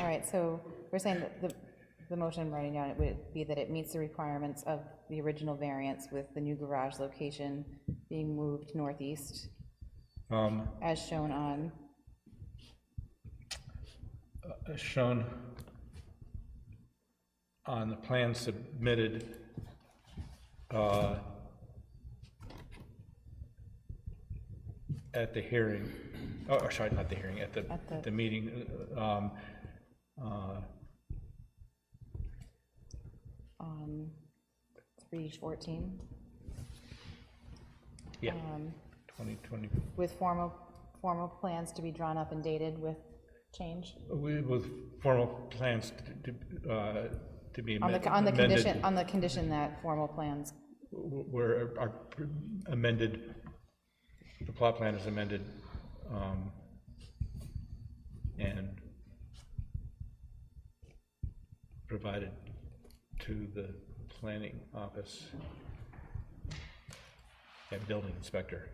All right, so we're saying that the, the motion writing down, it would be that it meets the requirements of the original variance with the new garage location being moved northeast Um, as shown on, as shown on the plan submitted, uh, at the hearing, oh, or sorry, not the hearing, at the, At the- at the meeting, um, uh, on three fourteen, yeah, um, 2020, with formal, formal plans to be drawn up and dated with change? we- with formal plans to, to, uh, to be On amended. the, on the condition, on the condition that formal plans, where our amended, the plot plan is amended, um, and provided to the planning office and building inspector.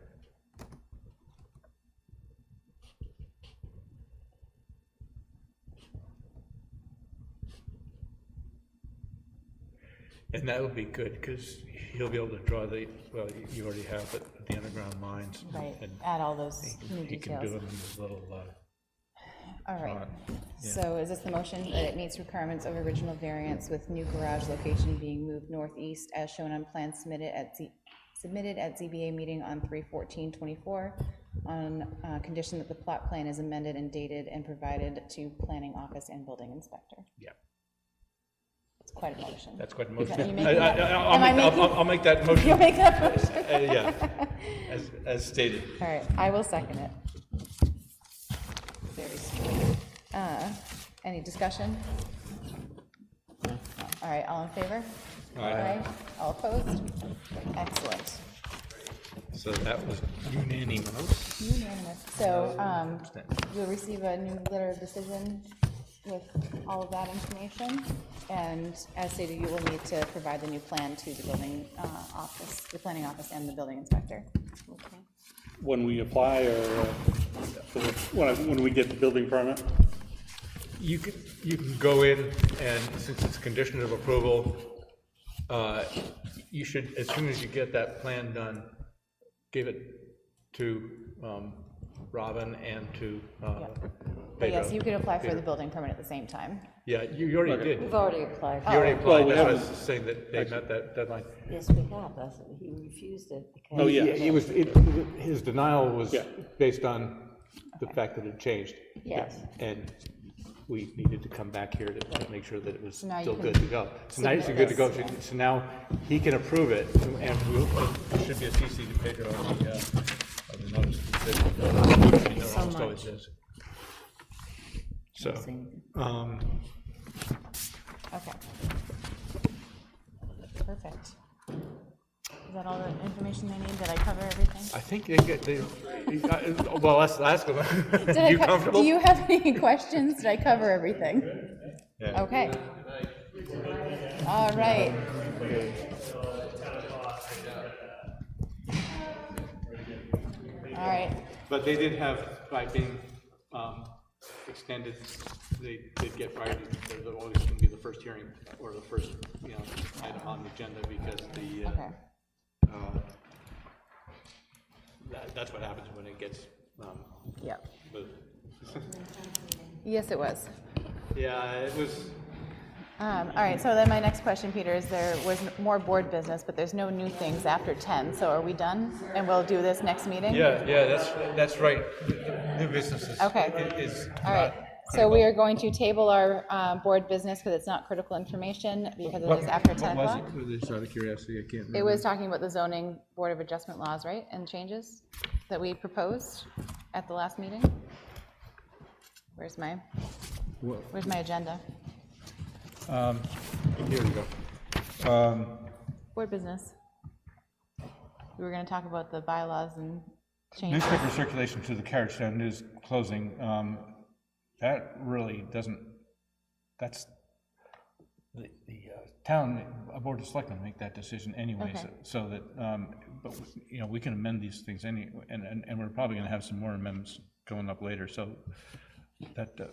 And that would be good, because he'll be able to draw the, well, you already have it, the underground lines. right, and add all those new He can do details. them in his little, uh, All right. font. So is this the motion that it meets requirements of original variance with new garage location being moved northeast as shown on plan submitted at, Z- submitted at ZBA meeting on 3/14/24 on uh, condition that the plot plan is amended and dated and provided to planning office and building inspector? yeah. It's quite a motion. That's quite a that you motion. making I- I- that- I'll am I make- I'll- making- I'll- I'll make that motion. You'll make that motion? Uh, Yeah, as, as stated. All right, I will second it. Very sweet. Uh, Any discussion? All right, all in favor? Aye. All opposed? Excellent. So that was unanimous. Unanimous. So um, you'll receive a new letter of decision with all of that information, and as stated, you will need to provide the new plan to the building uh, office, the planning office and the building inspector. Okay. When we apply or uh, for the- when, I- when we get the building permit? You can, you can go in and since it's condition of approval, uh, you should, as soon as you get that plan done, give it to um, Robin and to uh, But Pedro. yes, you could apply for the building permit at the same time. Yeah, you you already did. You We've already applied. already applied, oh, Well, we that's why I was haven't- saying that they met that deadline. Yes, we have. That's, he refused it because. Oh, yeah. It was, it- his denial was Yeah. based on the fact that it changed. Yes. And we needed to come back here to to make sure that it was now you still can good to go. So now it's submit good to go, this, so- so now he can approve it, and we'll, it should be a CC to Pedro on the, uh, on the notice. Thank you so much. So, um, Oh, Okay. Perfect. Is that all the information they need? Did I cover everything? I think they get, they, I- well, let's ask Did them. I You co- comfortable? Do you have any questions? Did I cover everything? Yeah. Okay. All right. All right, But they did have, by being um, extended, they did get priority, they're always going to be the first hearing or the first, you know, item on the agenda because the, okay. uh, uh, that- that's what happens when it gets um, Yep. moved. Yes, it was. Yeah, it was, Um, All right, so then my next question, Peter, is there was more board business, but there's no new things after 10, so are we done? And we'll do this next meeting? yeah, yeah, that's, that's right. New businesses. Okay. i- All right, so we are going to table our uh, board business because it's not critical information because it is after 10 o'clock. Just out of curiosity, I can't It was talking about the zoning board of adjustment laws, right, and changes that we proposed at the last meeting? Where's my, where's my agenda? Here we go. Board business. We were going to talk about the bylaws and changes. Newspaper circulation to the carriage stand is closing. Um, That really doesn't, that's, the, the uh, town, uh, Board of Selectmen make that decision anyways, Okay. so that, um, but, we- you know, we can amend these things any, and, and, and we're probably gonna have some more amendments going up later, so that, uh,